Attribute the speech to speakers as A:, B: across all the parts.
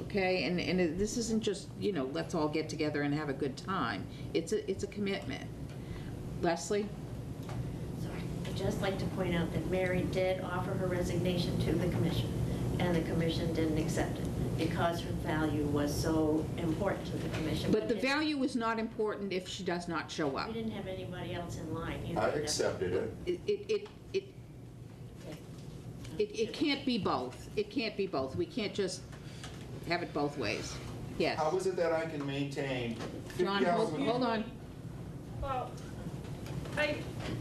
A: okay? And, and it- this isn't just, you know, let's all get together and have a good time. It's a, it's a commitment. Leslie?
B: Sorry, I'd just like to point out that Mary did offer her resignation to the commission, and the commission didn't accept it because her value was so important to the commission.
A: But the
B: We didn't-
A: value is not important if she does not show up.
B: We didn't have anybody else in line. You
C: I
B: know, that-
C: accepted it.
A: It, it, it- it,
B: Okay.
A: it, it can't be both. It can't be both. We can't just have it both ways. Yes.
C: How is it that I can maintain fifty
A: John,
C: hours?
A: hold
C: a
D: with-
A: hold
C: week?
A: on.
D: Well, I,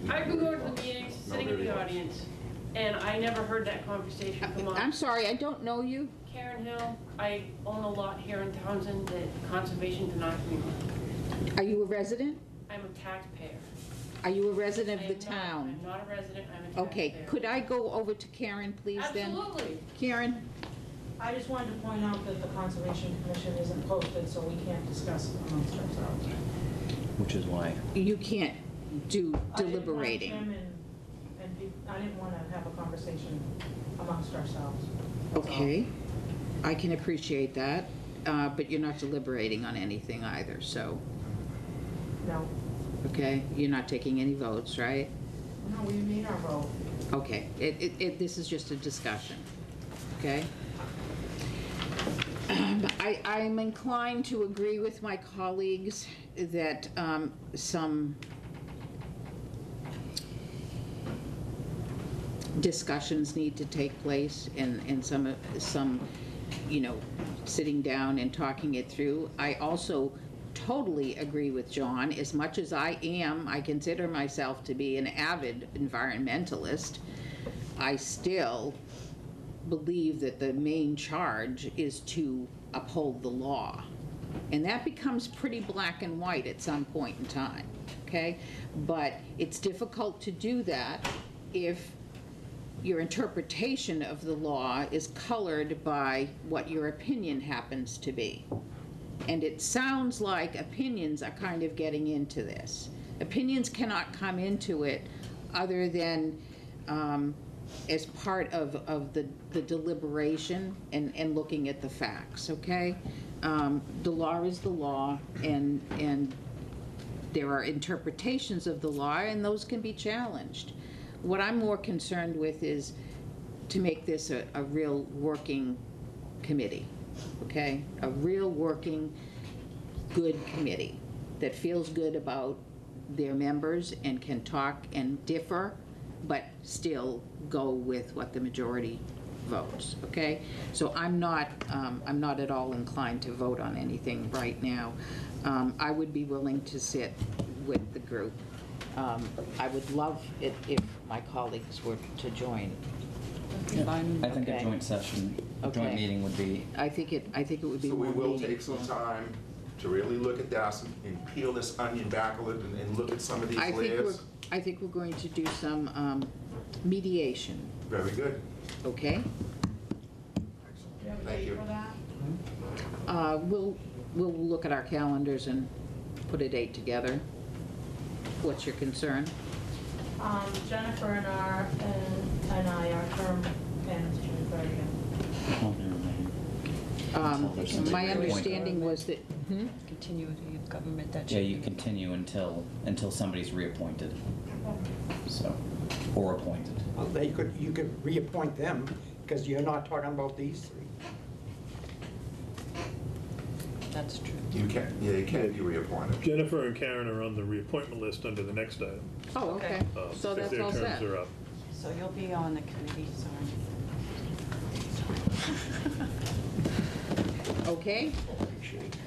D: I've been going to the meetings, sitting in the audience, and I never heard that conversation come up.
A: I'm sorry, I don't know you.
D: Karen Hill, I own a lot here in Townsend that conservation denied me.
A: Are you a resident?
D: I'm a taxpayer.
A: Are you a resident
D: I
A: of
D: am
A: the
D: not-
A: town?
D: I'm not a resident, I'm a taxpayer.
A: Okay, could I go over to Karen, please, then?
D: Absolutely.
A: Karen,
E: I just wanted to point out that the Conservation Commission isn't posted, so we can't discuss it amongst ourselves.
F: Which is why.
A: you can't do
E: I didn't
A: deliberating.
E: want Jim and, and be- I didn't want to have a conversation amongst ourselves. That's all.
A: Okay, I can appreciate that, uh, but you're not deliberating on anything either, so,
E: No,
A: okay? You're not taking any votes, right?
E: no, we made our vote.
A: Okay, it, it, it, this is just a discussion, okay? Um, I, I'm inclined to agree with my colleagues that, um, some discussions need to take place and, and some, some, you know, sitting down and talking it through. I also totally agree with John. As much as I am, I consider myself to be an avid environmentalist, I still believe that the main charge is to uphold the law. And that becomes pretty black and white at some point in time, okay? But it's difficult to do that if your interpretation of the law is colored by what your opinion happens to be. And it sounds like opinions are kind of getting into this. Opinions cannot come into it other than um, as part of, of the the deliberation and, and looking at the facts, okay? Um, The law is the law, and, and there are interpretations of the law, and those can be challenged. What I'm more concerned with is to make this a, a real working committee, okay? A real working, good committee that feels good about their members and can talk and differ, but still go with what the majority votes, okay? So I'm not, um, I'm not at all inclined to vote on anything right now. Um, I would be willing to sit with the group. Um, I would love it if my colleagues were to join.
F: I think a
A: Okay.
F: joint session,
A: Okay.
F: joint meeting would be,
A: I think it, I think it would be
C: So we
A: one
C: will
A: meeting.
C: take some time to really look at this and peel this onion back a little and, and look at some of these
A: I think we're,
C: layers.
A: I think we're going to do some um, mediation,
C: Very good.
A: okay?
E: Do you have a
C: Thank
E: date
C: you.
E: for that?
A: Uh, We'll, we'll look at our calendars and put a date together. What's your concern?
E: Um, Jennifer and our, and and I, our term ends June thirtieth.
F: well, never mind.
A: Um,
F: Until there's something
A: My
F: to appoint.
A: understanding was that, hmm?
G: continuity of government that should
F: Yeah,
G: be.
F: you continue until, until somebody's reappointed, so, or appointed.
H: Well, They could, you could reappoint them, because you're not talking about these three.
G: That's true.
C: You can, yeah, you can be reappointed.
I: Jennifer and Karen are on the reappointment list under the next item.
A: oh, okay,
I: um,
A: so that's all
I: If their
A: set.
I: terms are up.
G: So you'll be on the committee, sorry.
A: Okay,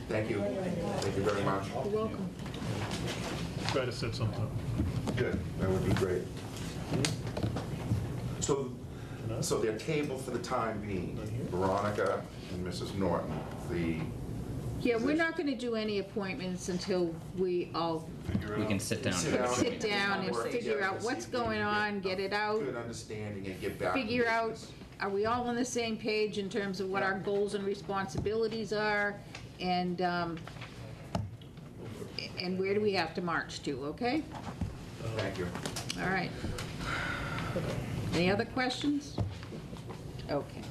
C: Thank you. Thank you very much.
A: you're welcome.
I: Try to set something up.
C: Good, that would be great. So, so they're tabled for the time being, Veronica and Mrs. Norton, the.
A: Yeah, we're not going to do any appointments until we all
F: We can sit down.
C: Sit down.
A: sit down and
C: Work
A: figure
C: together
A: out
C: and see
A: what's
C: if we can
A: going on, get it out,
C: Good understanding and get back. to
A: figure out,
C: business.
A: are we all on the same page in terms of what our goals and responsibilities are? And, um, and where do we have to march to, okay?
C: Thank you.
A: All right. Any other questions? Okay.